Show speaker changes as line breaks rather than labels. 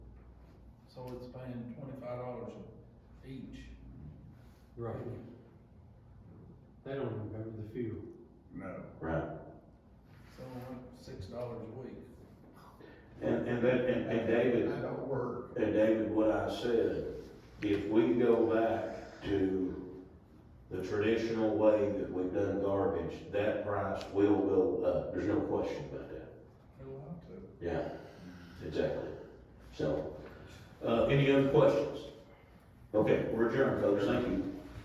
so it's paying twenty-five dollars each.
Right. They don't even cover the fuel.
No.
Right,
So like six dollars a week.
and, and that, and, and David,
That don't work.
and David, what I said, if we go back to the traditional way that we've done garbage, that price will go up, there's no question about that.
It'll have to.
Yeah, exactly. So, uh, any other questions? Okay, we're adjourned, folks, thank you.